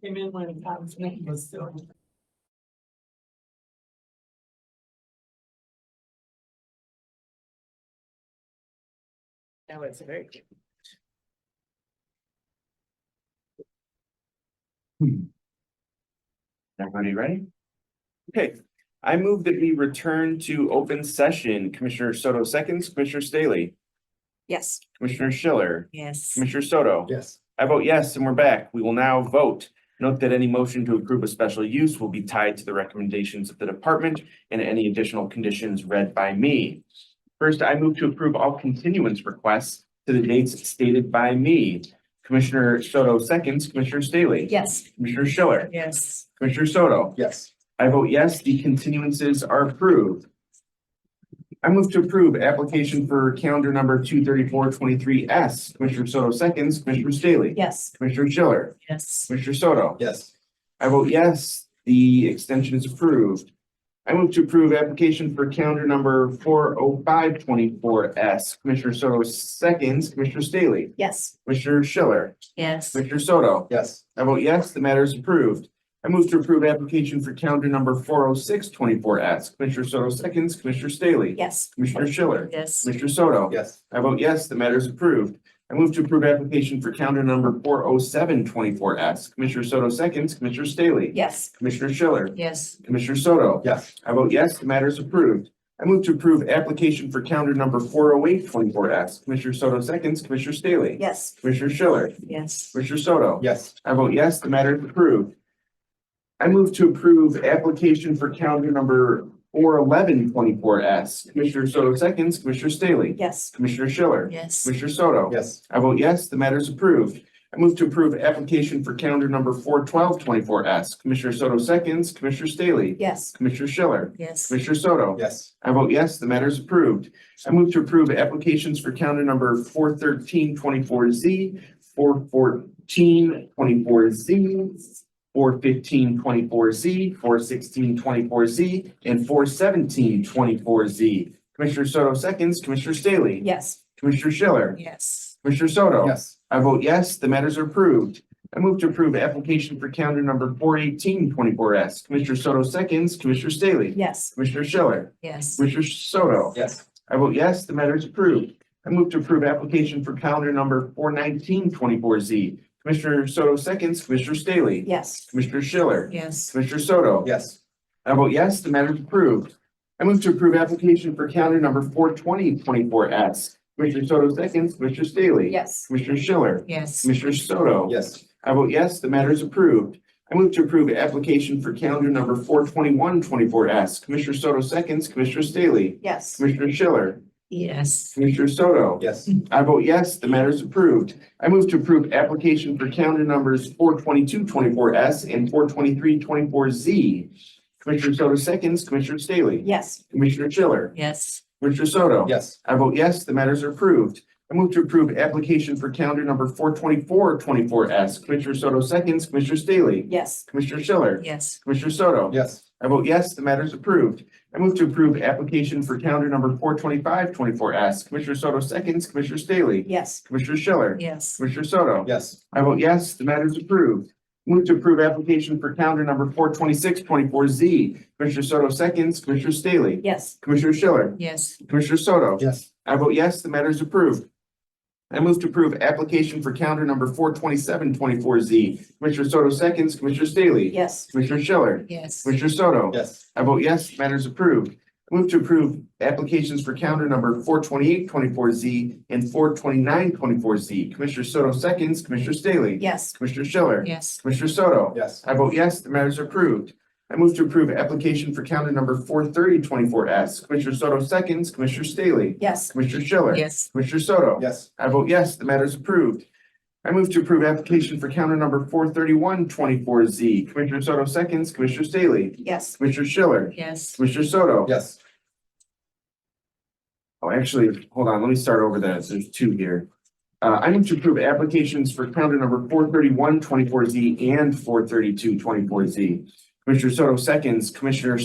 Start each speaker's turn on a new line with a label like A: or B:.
A: came in when Tom's name was still. Now it's very. cute.
B: Everybody ready? Okay, I move that we return to open session. Commissioner Soto seconds, Commissioner Staley,
C: Yes.
B: Commissioner Schiller,
C: Yes.
B: Commissioner Soto.
D: Yes.
B: I vote yes, and we're back. We will now vote. Note that any motion to approve a special use will be tied to the recommendations of the department and any additional conditions read by me. First, I move to approve all continuance requests to the dates stated by me. Commissioner Soto seconds, Commissioner Staley.
C: Yes.
B: Commissioner Schiller,
A: Yes,
B: Commissioner Soto.
D: Yes.
B: I vote yes, the continuances are approved. I move to approve application for calendar number two thirty-four twenty-three S. Commissioner Soto seconds, Commissioner Staley.
C: Yes.
B: Commissioner Schiller,
A: yes,
B: Commissioner Soto.
D: Yes.
B: I vote yes, the extension is approved. I move to approve application for calendar number four oh five twenty-four S. Commissioner Soto seconds, Commissioner Staley,
C: Yes.
B: Commissioner Schiller,
C: Yes.
B: Commissioner Soto.
D: Yes.
B: I vote yes, the matter is approved. I move to approve application for calendar number four oh six twenty-four S. Commissioner Soto seconds, Commissioner Staley.
C: Yes.
B: Commissioner Schiller.
A: yes,
B: Commissioner Soto.
D: Yes.
B: I vote yes, the matter is approved. I move to approve application for calendar number four oh seven twenty-four S. Commissioner Soto seconds, Commissioner Staley.
C: Yes.
B: Commissioner Schiller.
A: yes,
B: Commissioner Soto.
D: Yes.
B: I vote yes, the matter is approved. I move to approve application for calendar number four oh eight twenty-four S. Commissioner Soto seconds, Commissioner Staley.
C: Yes.
B: Commissioner Schiller.
A: yes,
B: Commissioner Soto.
D: Yes.
B: I vote yes, the matter is approved. I move to approve application for calendar number four eleven twenty-four S. Commissioner Soto seconds, Commissioner Staley.
C: Yes.
B: Commissioner Schiller.
A: yes,
B: Commissioner Soto.
D: Yes.
B: I vote yes, the matter is approved. I move to approve application for calendar number four twelve twenty-four S. Commissioner Soto seconds, Commissioner Staley.
C: Yes.
B: Commissioner Schiller.
A: yes,
B: Commissioner Soto.
D: Yes.
B: I vote yes, the matter is approved. I move to approve applications for calendar number four thirteen twenty-four Z, four fourteen twenty-four Z, four fifteen twenty-four Z, four sixteen twenty-four Z, and four seventeen twenty-four Z. Commissioner Soto seconds, Commissioner Staley.
C: Yes.
B: Commissioner Schiller.
A: yes,
B: Commissioner Soto.
D: Yes.
B: I vote yes, the matters are approved. I move to approve application for calendar number four eighteen twenty-four S. Commissioner Soto seconds, Commissioner Staley.
C: Yes.
B: Commissioner Schiller.
A: yes,
B: Commissioner Soto.
D: Yes.
B: I vote yes, the matter is approved. I move to approve application for calendar number four nineteen twenty-four Z. Commissioner Soto seconds, Commissioner Staley.
C: Yes.
B: Commissioner Schiller.
A: yes,
B: Commissioner Soto.
D: Yes.
B: I vote yes, the matter is approved. I move to approve application for calendar number four twenty twenty-four S. Commissioner Soto seconds, Commissioner Staley.
C: Yes.
B: Commissioner Schiller.
A: yes,
B: Commissioner Soto.
D: Yes.
B: I vote yes, the matter is approved. I move to approve application for calendar number four twenty-one twenty-four S. Commissioner Soto seconds, Commissioner Staley.
C: Yes.
B: Commissioner Schiller.
A: yes,
B: Commissioner Soto.
D: Yes.
B: I vote yes, the matter is approved. I move to approve application for calendar numbers four twenty-two twenty-four S and four twenty-three twenty-four Z. Commissioner Soto seconds, Commissioner Staley.
C: Yes.
B: Commissioner Schiller.
A: yes,
B: Commissioner Soto.
D: Yes.
B: I vote yes, the matters are approved. I move to approve application for calendar number four twenty-four twenty-four S. Commissioner Soto seconds, Commissioner Staley.
C: Yes.
B: Commissioner Schiller.
A: yes,
B: Commissioner Soto.
D: Yes.
B: I vote yes, the matter is approved. I move to approve application for calendar number four twenty-five twenty-four S. Commissioner Soto seconds, Commissioner Staley.
C: Yes.
B: Commissioner Schiller.
A: yes,
B: Commissioner Soto.
D: Yes.
B: I vote yes, the matter is approved. Move to approve application for calendar number four twenty-six twenty-four Z. Commissioner Soto seconds, Commissioner Staley.
C: Yes.
B: Commissioner Schiller.
A: yes,
B: Commissioner Soto.
D: Yes.
B: I vote yes, the matter is approved. I move to approve application for calendar number four twenty-seven twenty-four Z. Commissioner Soto seconds, Commissioner Staley.
C: Yes.
B: Commissioner Schiller.
A: yes,
B: Commissioner Soto.
D: Yes.
B: I vote yes, matter is approved. I Move to approve applications for calendar number four twenty-eight twenty-four Z and four twenty-nine twenty-four Z. Commissioner Soto seconds, Commissioner Staley.
C: Yes.
B: Commissioner Schiller.
A: yes,
B: Commissioner Soto.
D: Yes.
B: I vote yes, the matter is approved. I move to approve application for calendar number four thirty twenty-four S. Commissioner Soto seconds, Commissioner Staley.
C: Yes.
B: Commissioner Schiller.
A: yes,
B: Commissioner Soto.
D: Yes.
B: I vote yes, the matter is approved. I move to approve application for calendar number four thirty-one twenty-four Z. Commissioner Soto seconds, Commissioner Staley.
C: Yes.
B: Commissioner Schiller.
A: yes,
B: Commissioner Soto.
D: Yes.
B: Oh, actually, hold on, let me start over that. There's two here. Uh, I need to approve applications for calendar number four thirty-one twenty-four Z and four thirty-two twenty-four Z. Commissioner Soto seconds, Commissioner